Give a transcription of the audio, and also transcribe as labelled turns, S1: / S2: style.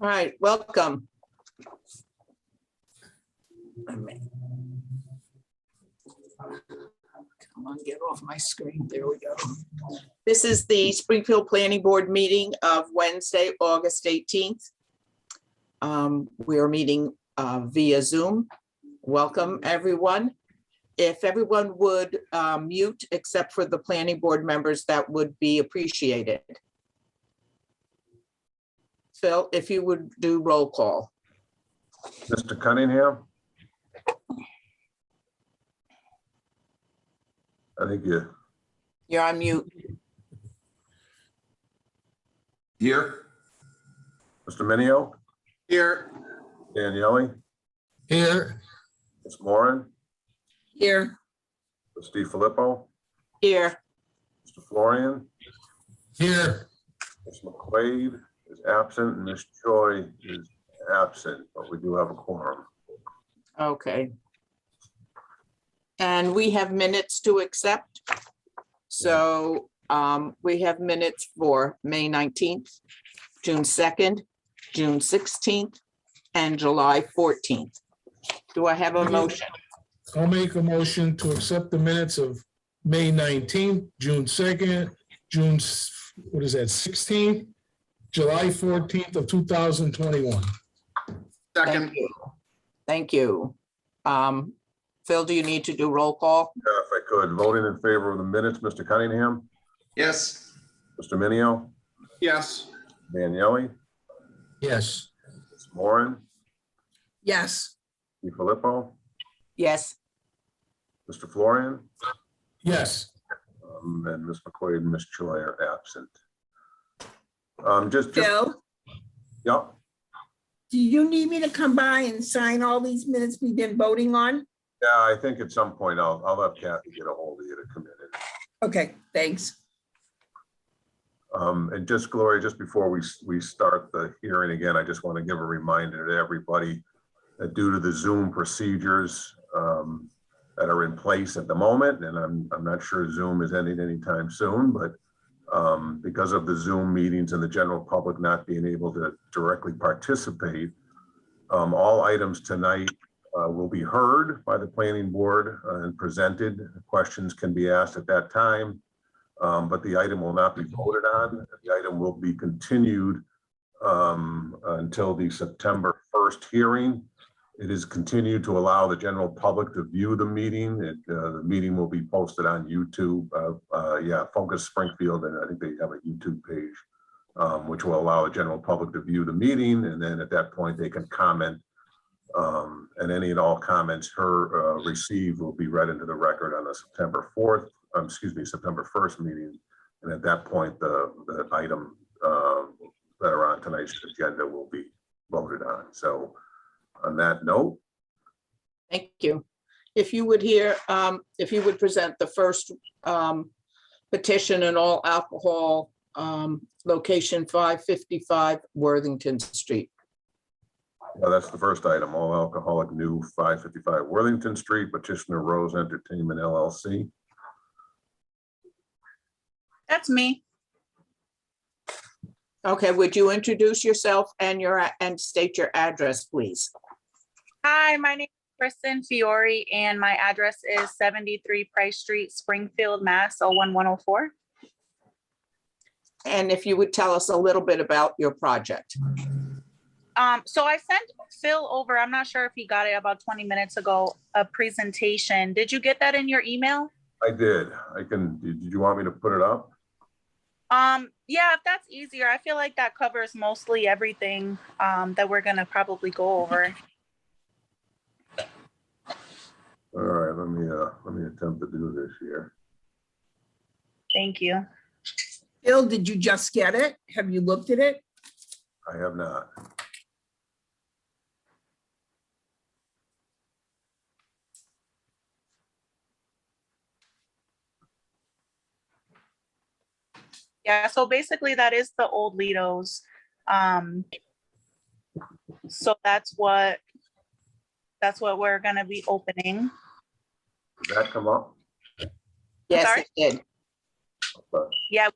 S1: All right, welcome. Come on, get off my screen. There we go. This is the Springfield Planning Board meeting of Wednesday, August 18th. Um, We are meeting uh, via Zoom. Welcome, everyone. If everyone would uh, mute except for the planning board members, that would be appreciated. Phil, if you would do roll call.
S2: Mr. Cunningham? I think you're
S1: You're on mute.
S2: here. Mr. Minio?
S3: Here.
S2: Daniele?
S3: Here.
S2: Ms. Moran?
S1: Here.
S2: Mr. Filippo?
S1: Here.
S2: Mr. Florian?
S3: Here.
S2: Ms. McQuaid is absent, and Ms. Choi is absent, but we do have a quorum.
S1: Okay. And we have minutes to accept. So um, we have minutes for May 19th, June 2nd, June 16th, and July 14th. Do I have a motion?
S3: I'll make a motion to accept the minutes of May nineteenth, June second, June, s- what is that, sixteenth, July fourteenth of two thousand twenty-one.
S1: Thank you. Thank you. Um, Phil, do you need to do roll call?
S2: Uh, If I could, voting in favor of the minutes, Mr. Cunningham?
S4: Yes,
S2: Mr. Minio?
S4: yes,
S2: Daniele?
S3: Yes.
S2: Ms. Moran?
S5: Yes,
S2: Mr. Filippo?
S1: Yes.
S2: Mr. Florian?
S3: Yes.
S2: Um, And Ms. McQuaid and Ms. Choi are absent. Um, Just, just-
S5: Phil,
S2: yeah,
S5: do you need me to come by and sign all these minutes we've been voting on?
S2: yeah, I think at some point I'll, I'll have Kathy get a hold of you to come in. and-
S5: Okay, thanks.
S2: Um, And just Gloria, just before we, s- we start the hearing again, I just want to give a reminder to everybody that due to the Zoom procedures um, that are in place at the moment, and I'm, I'm not sure Zoom is ending anytime soon, but um, because of the Zoom meetings and the general public not being able to directly participate, um, all items tonight uh, will be heard by the planning board uh, and presented. Questions can be asked at that time. Um, but the item will not be voted on. The item will be continued um, until the September first hearing. It is continued to allow the general public to view the meeting. It, uh, the meeting will be posted on YouTube. Uh, uh, yeah, Focus Springfield, and I think they have a YouTube page, um, which will allow the general public to view the meeting, and then at that point, they can comment. Um, and any and all comments her, uh, received will be read into the record on the September fourth um, excuse me, September 1st meeting. And at that point, the, the item um, that are on tonight's agenda will be voted on. So on that note,
S1: Thank you. If you would hear, um, if you would present the first, um, petition in all alcohol, um, location five fifty-five Worthington Street.
S2: uh, that's the first item, all alcoholic new 555 Worthington Street, petitioner Rose Entertainment LLC.
S6: That's me.
S1: Okay, would you introduce yourself and your, a- and state your address, please?
S6: Hi, my name is Kristen Fiore and my address is seventy-three Price Street, Springfield, Mass. Oh, one, one, oh, four.
S1: And if you would tell us a little bit about your project.
S6: Um, so I sent Phil over, I'm not sure if he got it about twenty minutes ago, a presentation. Did you get that in your email?
S2: I did, I can, did you want me to put it up?
S6: Um, yeah, if that's easier, I feel like that covers mostly everything, um, that we're gonna probably go over.
S2: All right, let me, uh, let me attempt to do this here.
S6: Thank you.
S5: Phil, did you just get it? Have you looked at it?
S2: I have not.
S6: Yeah, so basically that is the old Lido's. Um, so that's what, that's what we're gonna be opening.
S2: Did that come up?
S1: Yes,
S6: sorry?
S1: it did.
S2: But
S6: Yeah,